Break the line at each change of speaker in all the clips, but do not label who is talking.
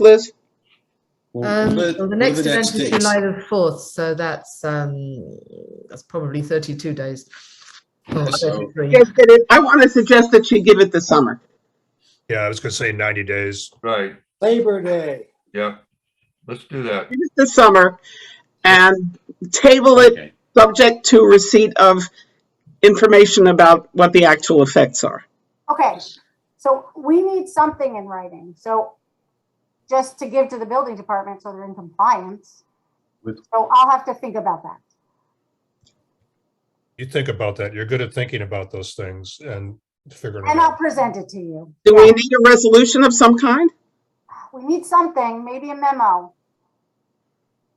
Liz?
Um,
Over-
well, the next
over the
event
next days.
is July the fourth, so that's um, that's probably thirty-two days. Oh, Or
So-
33.
Yes, it is. I want to suggest that you give it the summer.
Yeah, I was gonna say ninety days.
Right,
Labor Day.
yeah. Let's do that.
Give it the summer and table it
Okay.
subject to receipt of information about what the actual effects are.
Okay, so we need something in writing, so just to give to the building department so they're in compliance.
With-
So I'll have to think about that.
You think about that. You're good at thinking about those things and figuring it
And I'll
out.
present it to you.
Do we need a resolution of some kind?
We need something, maybe a memo.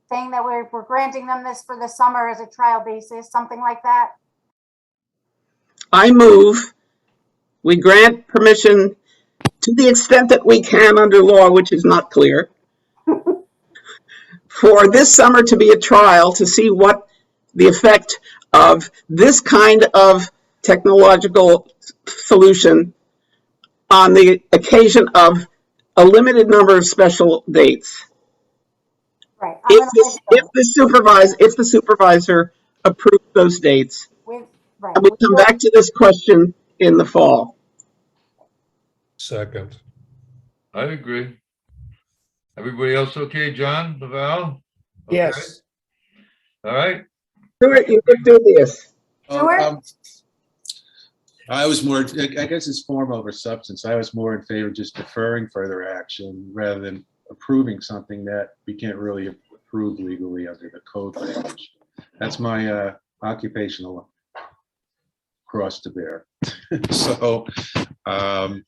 Saying that we're, we're granting them this for the summer as a trial basis, something like that.
I move, we grant permission to the extent that we can under law, which is not clear, for this summer to be a trial to see what the effect of this kind of technological solution on the occasion of a limited number of special dates.
Right. I'm
If
gonna
the,
write
if
that
the supervisor, if the supervisor approves those dates,
With, right.
and we come back to this question in the fall.
Second,
I agree. Everybody else okay, John, Laval? Okay.
Yes.
All right,
Stuart, you could do this.
Oh,
Stuart?
um, I was more, I I guess it's form over substance. I was more in favor of just deferring further action rather than approving something that we can't really approve legally under the code language. That's my uh, occupational cross to bear. So, um,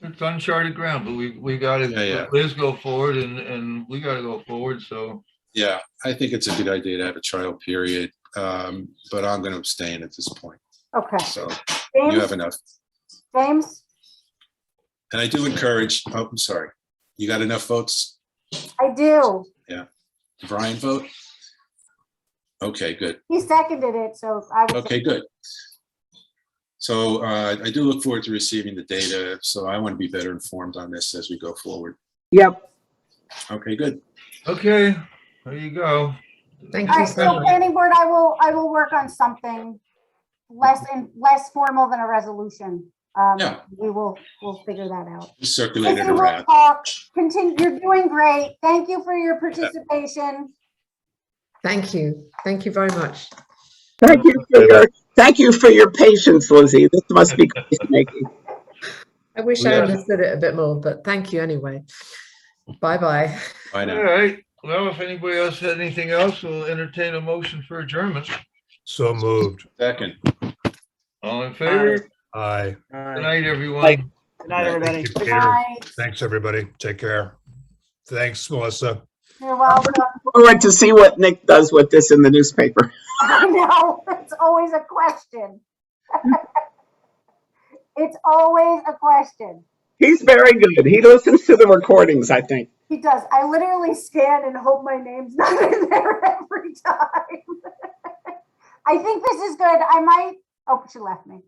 it's uncharted ground, but we, we gotta,
Yeah, yeah.
let Liz go forward and, and we gotta go forward, so.
yeah, I think it's a good idea to have a trial period, um, but I'm going to abstain at this point.
Okay,
So you have
James,
enough.
James,
And I do encourage, oh, I'm sorry. You got enough votes
I do.
Brian vote? Okay, good.
He seconded it, so I was.
Okay, good. So uh, I do look forward to receiving the data, so I want to be better informed on this as we go forward.
Yep.
Okay, good.
Okay, there you go.
Thank
All
you
right,
so
so
much.
planning board, I will, I will work on something less and less formal than a resolution. Um,
Yeah.
we will, we'll figure that out.
Just Circulate it
Listen, we'll
around.
talk. Continue, you're doing great. Thank you for your participation.
Thank you. Thank you very much.
Thank you for your, thank you for your patience, Lizzie. This must be case-making.
I wish I
Yeah.
understood it a bit more, but thank you anyway. Bye bye.
Bye
All
now.
right, well, if anybody else had anything else, we'll entertain a motion for adjournment.
so moved.
Second.
All in favor?
Aye.
All
Good
right.
night, everyone.
Bye. Good night, everybody.
Thank you,
Good
Peter.
night.
Thanks, everybody. Take care. Thanks, Melissa.
You're welcome.
Forward to see what Nick does with this in the newspaper.
I know, it's always a question. It's always a question.
He's very good. He listens to the recordings, I think.
He does. I literally scan and hope my name's not in there every time. I think this is good. I might, oh, she left me.